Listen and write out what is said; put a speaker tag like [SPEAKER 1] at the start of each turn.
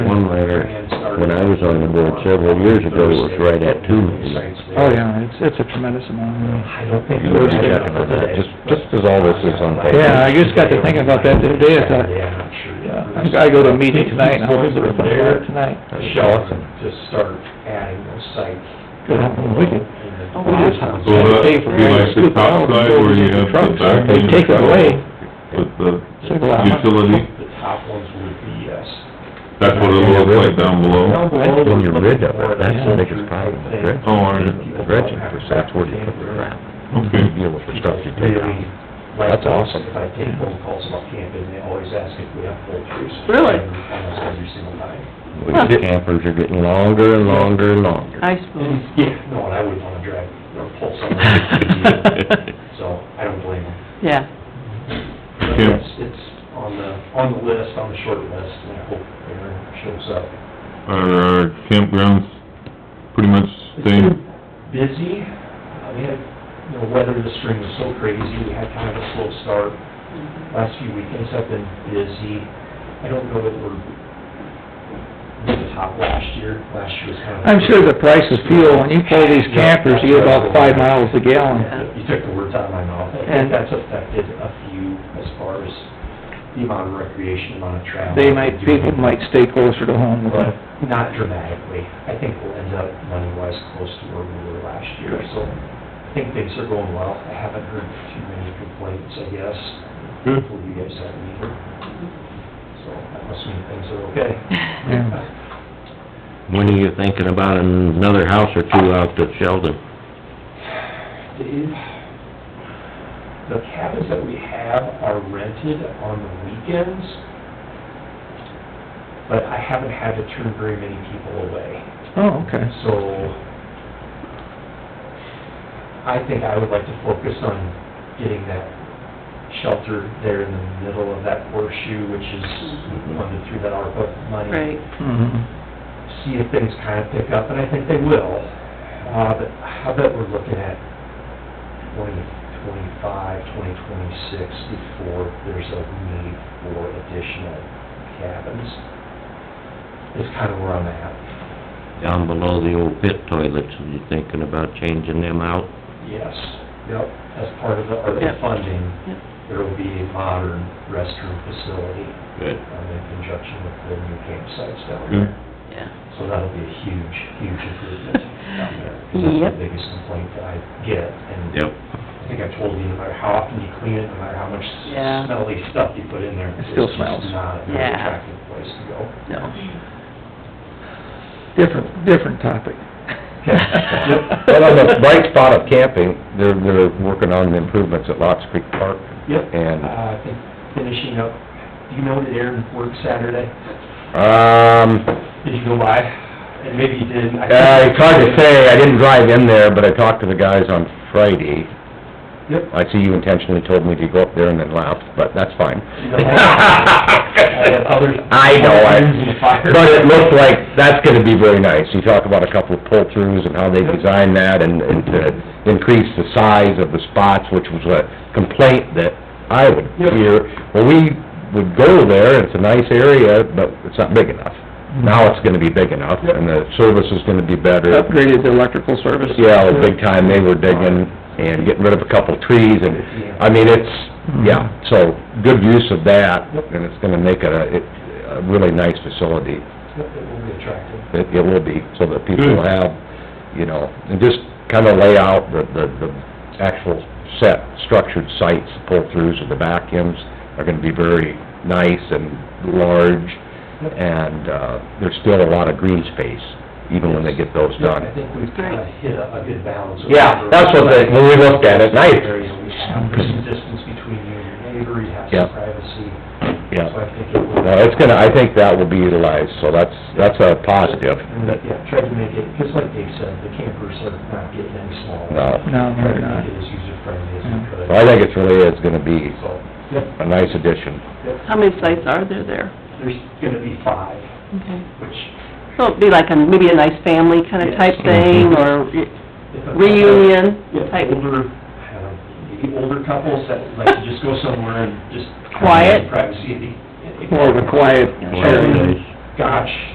[SPEAKER 1] when I was on the board several years ago, it was right at two million.
[SPEAKER 2] Oh, yeah, it's, it's a tremendous amount.
[SPEAKER 3] I don't think.
[SPEAKER 1] You were checking for that, just, just as all this is on paper.
[SPEAKER 2] Yeah, I just got to thinking about that the other day, it's like,
[SPEAKER 3] Yeah, I'm sure.
[SPEAKER 2] I gotta go to a meeting tonight, and I'll visit with my board tonight.
[SPEAKER 3] Michelle, just start adding those sites.
[SPEAKER 2] Good, we could, we just have.
[SPEAKER 4] So that would be like the top side where you have the back
[SPEAKER 2] They
[SPEAKER 4] end
[SPEAKER 2] take it away, uh-huh.
[SPEAKER 4] with the
[SPEAKER 2] Save a lot of money.
[SPEAKER 4] utility,
[SPEAKER 3] The top ones would be, uh, yes.
[SPEAKER 4] that's what it looks like down below.
[SPEAKER 1] That's when you're rid of it, that's the biggest problem, with dredging.
[SPEAKER 4] Oh, I know. Hmm.
[SPEAKER 1] The Dredging, because that's where you put the crap,
[SPEAKER 4] Okay.
[SPEAKER 1] you deal with the stuff you take
[SPEAKER 3] Really,
[SPEAKER 1] out.
[SPEAKER 3] like,
[SPEAKER 1] That's awesome.
[SPEAKER 3] if I take phone calls about camping, they always ask if we have full trees.
[SPEAKER 5] Really?
[SPEAKER 3] Almost every single night.
[SPEAKER 1] We sit- Campers are getting longer and longer and longer.
[SPEAKER 5] I suppose.
[SPEAKER 3] Yeah, no, and I wouldn't wanna drive or pull someone, so I don't blame them.
[SPEAKER 5] Yeah,
[SPEAKER 3] But
[SPEAKER 4] Yeah.
[SPEAKER 3] It's, it's on the, on the list, on the short list, and I hope Aaron shows up.
[SPEAKER 4] Are our campgrounds pretty much same?
[SPEAKER 3] Busy, I mean, you know, weather this spring was so crazy, we had kind of a slow start. Last few weekends have been busy. I don't know that we're near the top last year, last year was kind of.
[SPEAKER 2] I'm sure the price of fuel, when you pull these campers, you get about five miles a gallon.
[SPEAKER 3] You took the words out of my mouth. I
[SPEAKER 2] And-
[SPEAKER 3] think that's affected a few as far as the amount of recreation, amount of travel.
[SPEAKER 2] They might, people might stay closer to home with
[SPEAKER 3] But
[SPEAKER 2] it.
[SPEAKER 3] not dramatically. I think we'll end up money-wise close to where we were last year, so I think things are going well. I haven't heard too many complaints, I guess.
[SPEAKER 4] Good.
[SPEAKER 3] Hopefully you guys haven't either. So that must mean things are okay.
[SPEAKER 2] Yeah.
[SPEAKER 1] When are you thinking about another house or two out to Sheldon?
[SPEAKER 3] Dave, the cabins that we have are rented on the weekends, but I haven't had to turn very many people away.
[SPEAKER 2] Oh, okay.
[SPEAKER 3] So, I think I would like to focus on getting that shelter there in the middle of that horseshoe, which is funded through that ARPA money.
[SPEAKER 5] right.
[SPEAKER 2] Mhm.
[SPEAKER 3] See if things kind of pick up, and I think they will. Uh, but I bet we're looking at twenty twenty-five, twenty twenty-six before there's a need for additional cabins. Is kind of where I'm at.
[SPEAKER 1] Down below the old pit toilets, are you thinking about changing them out?
[SPEAKER 3] Yes, yep, as part of the, or the
[SPEAKER 5] Yep.
[SPEAKER 3] funding,
[SPEAKER 5] Yep.
[SPEAKER 3] there will be a modern restroom facility
[SPEAKER 1] Good.
[SPEAKER 3] um, in conjunction with the new campsites down
[SPEAKER 4] Good.
[SPEAKER 3] there.
[SPEAKER 5] Yeah.
[SPEAKER 3] So that'll be a huge, huge improvement down there. 'cause that's
[SPEAKER 5] Yep.
[SPEAKER 3] the biggest complaint that I get, and
[SPEAKER 1] Yep.
[SPEAKER 3] I think I told you, no matter how often you clean it, no matter how much
[SPEAKER 5] Yeah.
[SPEAKER 3] smelly stuff you put in there.
[SPEAKER 2] It still
[SPEAKER 3] It's
[SPEAKER 2] smells.
[SPEAKER 3] just not a very
[SPEAKER 5] Yeah.
[SPEAKER 3] attractive place to go.
[SPEAKER 5] No.
[SPEAKER 2] Different, different topic.
[SPEAKER 1] Well, on the bright spot of camping, they're, they're working on the improvements at Lots Creek Park.
[SPEAKER 3] Yep.
[SPEAKER 1] And-
[SPEAKER 3] Uh, I think finishing up, do you know that Aaron worked Saturday?
[SPEAKER 1] Um,
[SPEAKER 3] Did you go by? And maybe you didn't. I-
[SPEAKER 1] uh, it's hard to say, I didn't drive in there, but I talked to the guys on Friday.
[SPEAKER 3] Yep.
[SPEAKER 1] I see you intentionally told me to go up there and then laughed, but that's fine.
[SPEAKER 3] You know, I have others-
[SPEAKER 1] I know,
[SPEAKER 3] Irons
[SPEAKER 1] I,
[SPEAKER 3] fire.
[SPEAKER 1] but it looked like, that's gonna be very nice. You talk about a couple of pull-throughs and how they
[SPEAKER 3] Yep.
[SPEAKER 1] designed that and, and to increase the size of the spots, which was a complaint that I would
[SPEAKER 3] Yep.
[SPEAKER 1] hear. Well, we would go there, it's a nice area, but it's not big enough. Now it's gonna be big enough
[SPEAKER 3] Yep.
[SPEAKER 1] and the service is gonna be better.
[SPEAKER 2] Upgraded the electrical service.
[SPEAKER 1] Yeah, the big time they were digging and getting rid of a couple trees and, I mean, it's, yeah, so good use of that and it's gonna make it a, it, a really nice facility.
[SPEAKER 3] Yep, It will be attractive.
[SPEAKER 1] It, it will be, so that people
[SPEAKER 4] Good.
[SPEAKER 1] will have, you know, and just kinda lay out the, the, the actual set structured sites, pull-throughs of the vacuums are gonna be very nice and large and, uh, there's still a lot of green space, even when they get those
[SPEAKER 3] Yeah,
[SPEAKER 1] done.
[SPEAKER 3] I think we've kinda hit a, a good balance. of
[SPEAKER 1] Yeah, that's what they, when we looked at it, nice,
[SPEAKER 3] Area we have, there's some distance between you and your neighbor, you have
[SPEAKER 1] Yeah.
[SPEAKER 3] some privacy. So
[SPEAKER 1] yeah.
[SPEAKER 3] I think it will.
[SPEAKER 1] No, it's gonna, I think that will be utilized, so that's, that's a positive.
[SPEAKER 3] And, Yeah, try to make it, just like Dave said, the campers are not getting any smaller.
[SPEAKER 2] No,
[SPEAKER 1] No.
[SPEAKER 3] Try to
[SPEAKER 2] they're not.
[SPEAKER 3] make it as user-friendly as
[SPEAKER 2] Yeah.
[SPEAKER 3] we could.
[SPEAKER 1] Uh, So I think it's really, it's gonna be
[SPEAKER 3] So, yep,
[SPEAKER 1] a nice addition.
[SPEAKER 3] yep,
[SPEAKER 5] How many sites are there there?
[SPEAKER 3] there's gonna be five,
[SPEAKER 5] Okay.
[SPEAKER 3] which.
[SPEAKER 5] So it'd be like a, maybe a nice family kind of type thing, or
[SPEAKER 3] if a-
[SPEAKER 5] reunion
[SPEAKER 3] Yeah,
[SPEAKER 5] type?
[SPEAKER 3] older, uh, maybe older couples that like to just go somewhere and just.
[SPEAKER 5] Quiet.
[SPEAKER 3] Privacy.
[SPEAKER 2] More of a quiet
[SPEAKER 1] Well,
[SPEAKER 2] area.
[SPEAKER 1] it is.
[SPEAKER 3] Gosh,